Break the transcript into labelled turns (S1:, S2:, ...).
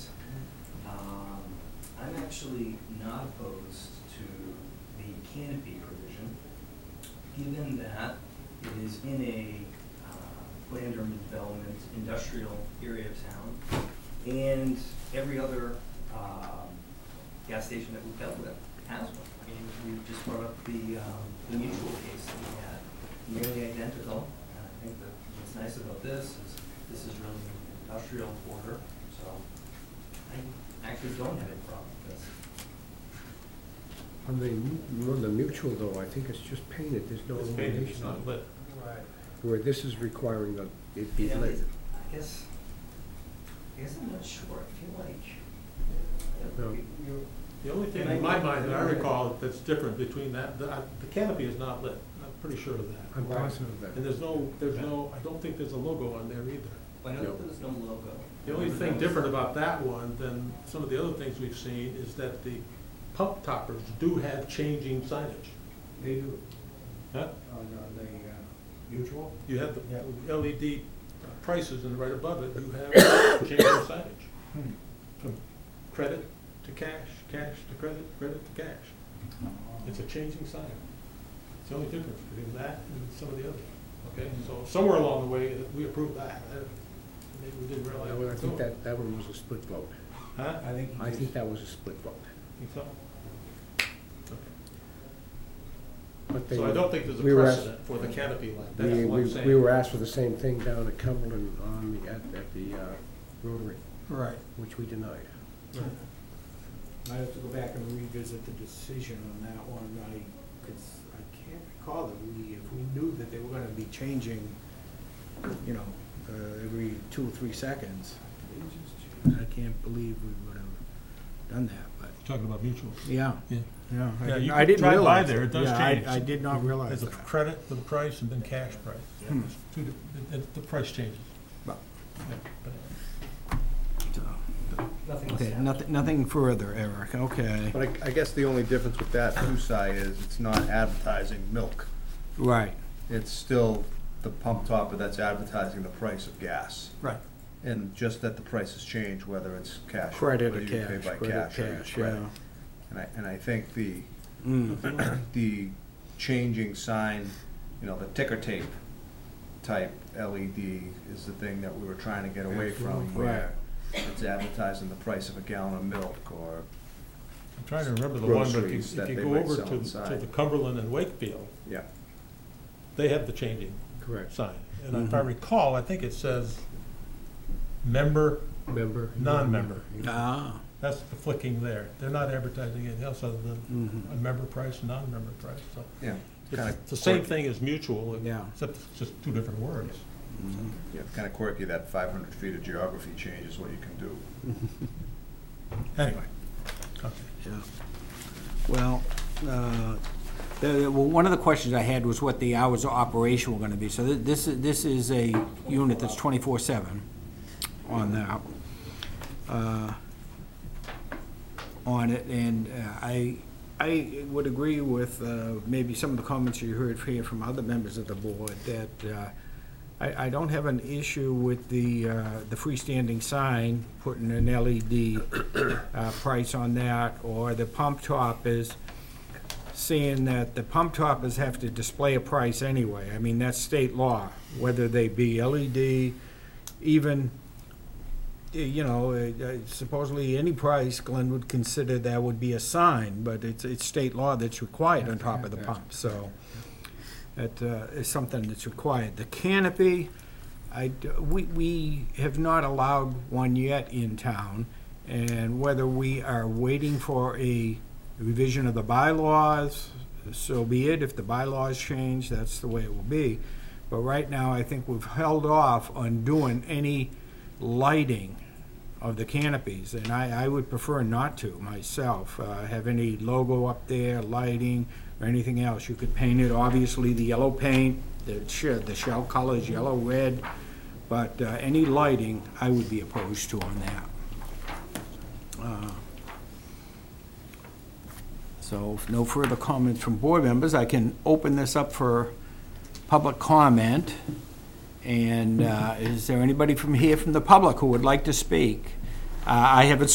S1: Um, actually not opposed to the canopy provision, given that it is in a uh, land urban development industrial area of town, and every other um, gas station that we've dealt with has one. I mean, we just brought up the, um, the mutual case that we had, nearly identical. And I think that what's nice about this is, this is really an industrial quarter, so I actually don't have a problem with this.
S2: On the, mu- on the mutual though, I think it's just painted, there's no
S3: It's painted, it's
S2: illumination. on
S3: not lit.
S4: Right.
S2: it. Where this is requiring that it be
S1: You know,
S2: lit.
S1: it's- I guess, I guess I'm not sure, I feel like, uh,
S2: No.
S1: you- you're,
S3: The only thing in my mind that I recall that's different between that, the I- the canopy is not lit, I'm pretty sure of that.
S2: I'm positive of
S3: And
S2: that.
S3: there's no, there's no, I don't think there's a logo on there either.
S1: I know
S2: No.
S1: there's no logo.
S3: The only thing
S1: There's-
S3: different about that one than some of the other things we've seen is that the pump toppers do have changing signage.
S4: They
S1: uh,
S4: do,
S3: Huh?
S4: on, on the uh, mutual?
S3: You have
S4: Yeah.
S3: the LED prices and right above it, you have changing signage.
S2: Hmm.
S3: From credit to cash, cash to credit, credit to cash. It's a changing sign. It's the only difference between that and some of the others, okay?
S2: Hmm.
S3: So somewhere along the way, we approved that. I- Maybe we didn't realize.
S2: That
S3: we
S2: one- I
S3: were
S2: think
S3: doing.
S2: that, that one was a split vote.
S3: Huh?
S4: I think.
S2: I think that was a split vote.
S3: Think so? Okay.
S2: But they
S3: So I
S2: were-
S3: don't think there's a
S2: we were asked-
S3: precedent for the canopy line,
S2: we-
S3: that's what I'm
S2: we-
S3: saying.
S2: We were asked for the same thing down at Cumberland on the, at, at the uh, Rotary,
S3: Right.
S2: which we denied.
S4: Might have to go back and revisit the decision on that one, I, cause I can't recall that we, if we knew that they were gonna be changing, you know, uh, every two or three seconds. I can't believe we would have done that, but,
S3: Talking about mutual.
S4: yeah,
S3: Yeah.
S4: yeah, I
S3: Yeah,
S4: didn't-
S3: you
S4: I
S3: could
S4: didn't
S3: drive by
S4: realize.
S3: there, it
S4: that.
S3: does
S4: Yeah, I-
S3: change.
S4: I did not realize
S3: There's a
S4: that.
S3: credit for the price and then cash price.
S4: Hmm.
S3: It's two di- The, the- the price changes.
S4: But-
S3: Yeah, but-
S1: Nothing was
S4: Okay,
S1: said.
S4: nothing, nothing further, Eric, okay,
S5: But I, I guess the only difference with that Kusai is it's not advertising milk.
S4: right,
S5: It's still the pump topper that's advertising the price of gas.
S4: right.
S5: And just that the prices change, whether it's cash. or
S4: Credit or
S5: whether you pay
S4: cash,
S5: by
S4: credit
S5: or you
S4: cash,
S5: credit.
S4: yeah.
S5: And I, and I think the,
S4: Mm.
S5: the changing sign, you know, the ticker tape type LED is the thing that we were trying to get away from.
S4: Absolutely.
S5: Where it's advertising the price of a gallon of milk or,
S3: I'm trying to remember the one, but if you,
S5: Groceries that
S3: if you
S5: they
S3: go
S5: might
S3: over
S5: sell
S3: to, to
S5: inside.
S3: the Cumberland and Wakefield,
S5: yeah.
S3: they have the changing
S2: Correct.
S3: sign. And
S4: Mm-hmm.
S3: if I recall, I think it says member,
S2: Member?
S3: non-member.
S4: Ah,
S3: That's the flicking there. They're not advertising anything else other than
S4: Mm-hmm.
S3: a member price, non-member price, so.
S5: Yeah.
S3: It's
S5: Kinda
S3: the same
S5: quirky.
S3: thing as mutual,
S4: Yeah.
S3: except it's just two different words.
S5: Yeah, it's kind of quirky that 500 feet of geography changes what you can do.
S3: Anyway. Okay.
S4: yeah. Well, uh, the- the- well, one of the questions I had was what the hours of operation were gonna be. So thi- this, is- this is a unit that's twenty-four seven on that. uh, On it, and uh, I, I would agree with uh, maybe some of the comments you heard here from other members of the board, that uh, I, I don't have an issue with the, uh, the freestanding sign, putting an LED uh, price on that, or the pump toppers, seeing that the pump toppers have to display a price anyway. I mean, that's state law, whether they be LED, even, eh, you know, eh, eh, supposedly any price, Glenn would consider that would be a sign, but it's, it's state law that's required on top of the pump, so that uh, is something that's required. The canopy, I, d- we, we have not allowed one yet in town, and whether we are waiting for a revision of the bylaws, so be it. If the bylaws change, that's the way it will be. But right now, I think we've held off on doing any lighting of the canopies, and I, I would prefer not to myself, uh, have any logo up there, lighting, or anything else. You could paint it, obviously, the yellow paint, the shell, the shell colors, yellow, red, but uh, any lighting, I would be opposed to on that. Uh, So if no further comments from board members, I can open this up for public comment. And uh, is there anybody from here from the public who would like to speak? Uh, I have it